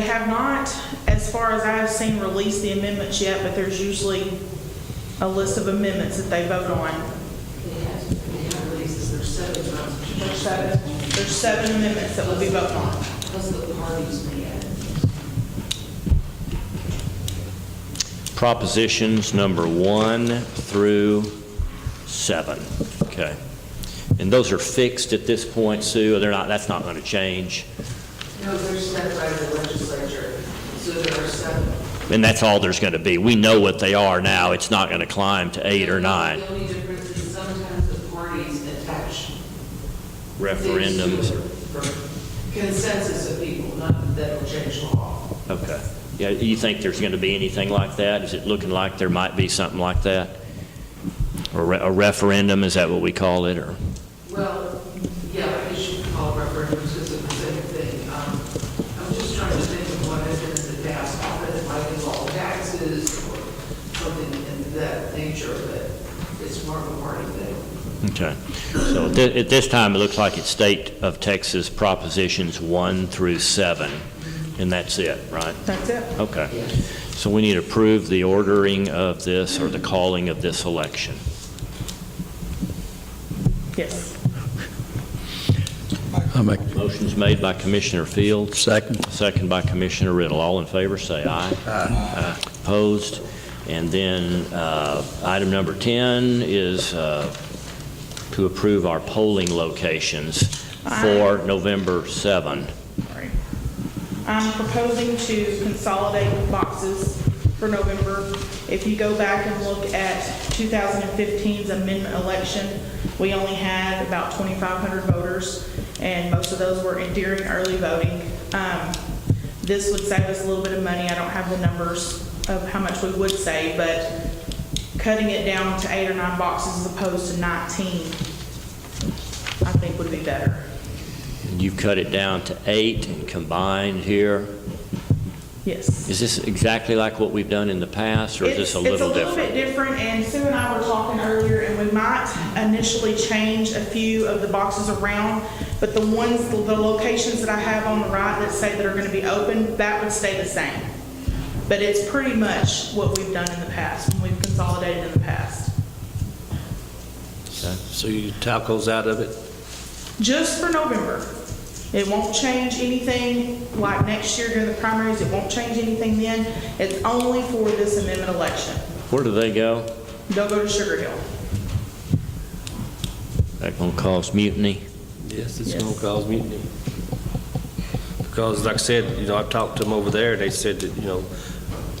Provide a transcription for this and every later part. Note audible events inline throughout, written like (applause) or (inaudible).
have not, as far as I have seen, released the amendments yet, but there's usually a list of amendments that they vote on. They have, they have releases, there's seven times. There's seven, there's seven amendments that will be voted on. Plus the parties may add. Propositions number one through seven. Okay. And those are fixed at this point, Sue? They're not, that's not going to change? No, they're set by the legislature, so there are seven. And that's all there's going to be. We know what they are now. It's not going to climb to eight or nine. The only difference is sometimes the parties attach. Referendums. or Consensus of people, not that'll change law. Okay. Yeah, you think there's going to be anything like that? Is it looking like there might be something like that? Or re- A referendum, is that what we call it, or? Well, yeah, you should call referendums because it's the same thing. Um, I'm just trying to think of what has been in the past, often it might involve taxes or something in that nature, but it's more of a party thing. Okay. So at thi- at this time, it looks like it's State of Texas Propositions 1 through 7, and that's it, right? That's it. Okay. So we need to approve the ordering of this, or the calling of this election. Yes. I make Motion's made by Commissioner Fields, second. second by Commissioner Riddle. All in favor, say aye. Aye. Opposed? And then uh, item number 10 is uh, to approve our polling locations for November 7. Sorry. I'm proposing to consolidate boxes for November. If you go back and look at 2015's amendment election, we only had about 2,500 voters, and most of those were in during early voting. Um, This would save us a little bit of money. I don't have the numbers of how much we would save, but cutting it down to eight or nine boxes as opposed to 19, I think would be better. You've cut it down to eight and combined here. Yes. Is this exactly like what we've done in the past, or is this a little It's a little different? bit different, and Sue and I were talking earlier, and we might initially change a few of the boxes around, but the ones, the locations that I have on the right that say that are gonna be open, that would stay the same. But it's pretty much what we've done in the past, when we've consolidated in the past. Okay. So you tacos out of it? Just for November. It won't change anything, like next year during the primaries, it won't change anything then. It's only for this amendment election. Where do they go? They'll go to Sugar Hill. That gonna cause mutiny? Yes, it's Yes. going to cause mutiny. Because like I said, you know, I've talked to them over there, they said that, you know,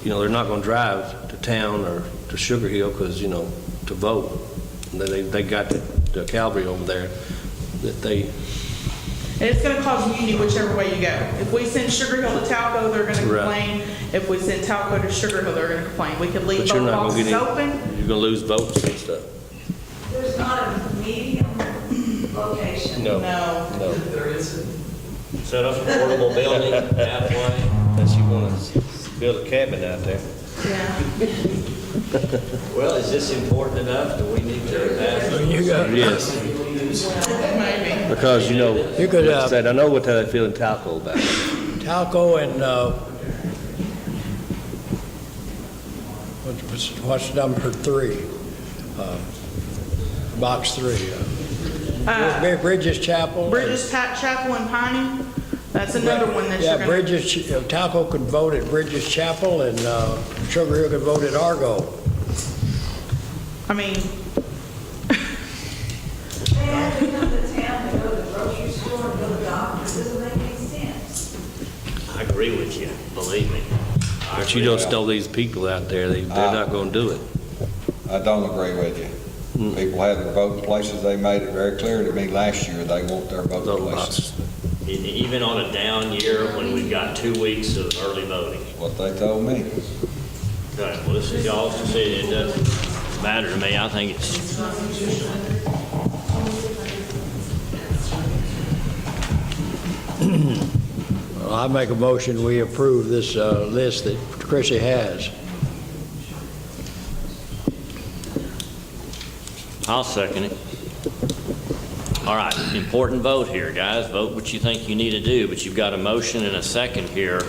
you know, they're not going to drive to town or to Sugar Hill because, you know, to vote. And They, they got the- the cavalry over there that they, And it's gonna cause mutiny whichever way you go. If we send Sugar Hill to Talco, they're gonna Right. complain. If we send Talco to Sugar Hill, they're gonna complain. We could leave but you're both not going to boxes get any. open. You're going to lose votes and stuff. There's not a medium location. Oh. No. No. There is, Set up an portable (laughs) building out way, unless you want to build a cabin out there. Yeah. Well, is this important enough? Do we need to ask? You got, Yes. Maybe. Because, you know, You could, like I uh, said, I know what they're feeling taco about. Talco and, uh, what- what's, what's number three? Uh, Box three. uh, Brid- Bridges Chapel. Bridges Pat Chapel and Piney, that's another one that you're Yeah, gonna. Bridges, Ch- uh, Talco could vote at Bridges Chapel and uh, Sugar Hill could vote at Argo. I mean, They have to come to town to go to the grocery store, go to the doctor, It doesn't make any sense. I agree with you, believe me. But you don't know these people out there, they, they're not gonna do it. I don't agree with you. People have their voting places, they made it very clear to me last year, they want their voting places. E, Even on a down year, when we've got two weeks of early voting. What they told me. Okay, well, this is y'all's decision, it doesn't matter to me, I think it's... Well, I make a motion, we approve this uh, list that Chrissy has. I'll second it. All right, important vote here, guys, vote what you think you need to do, but you've got a motion and a second here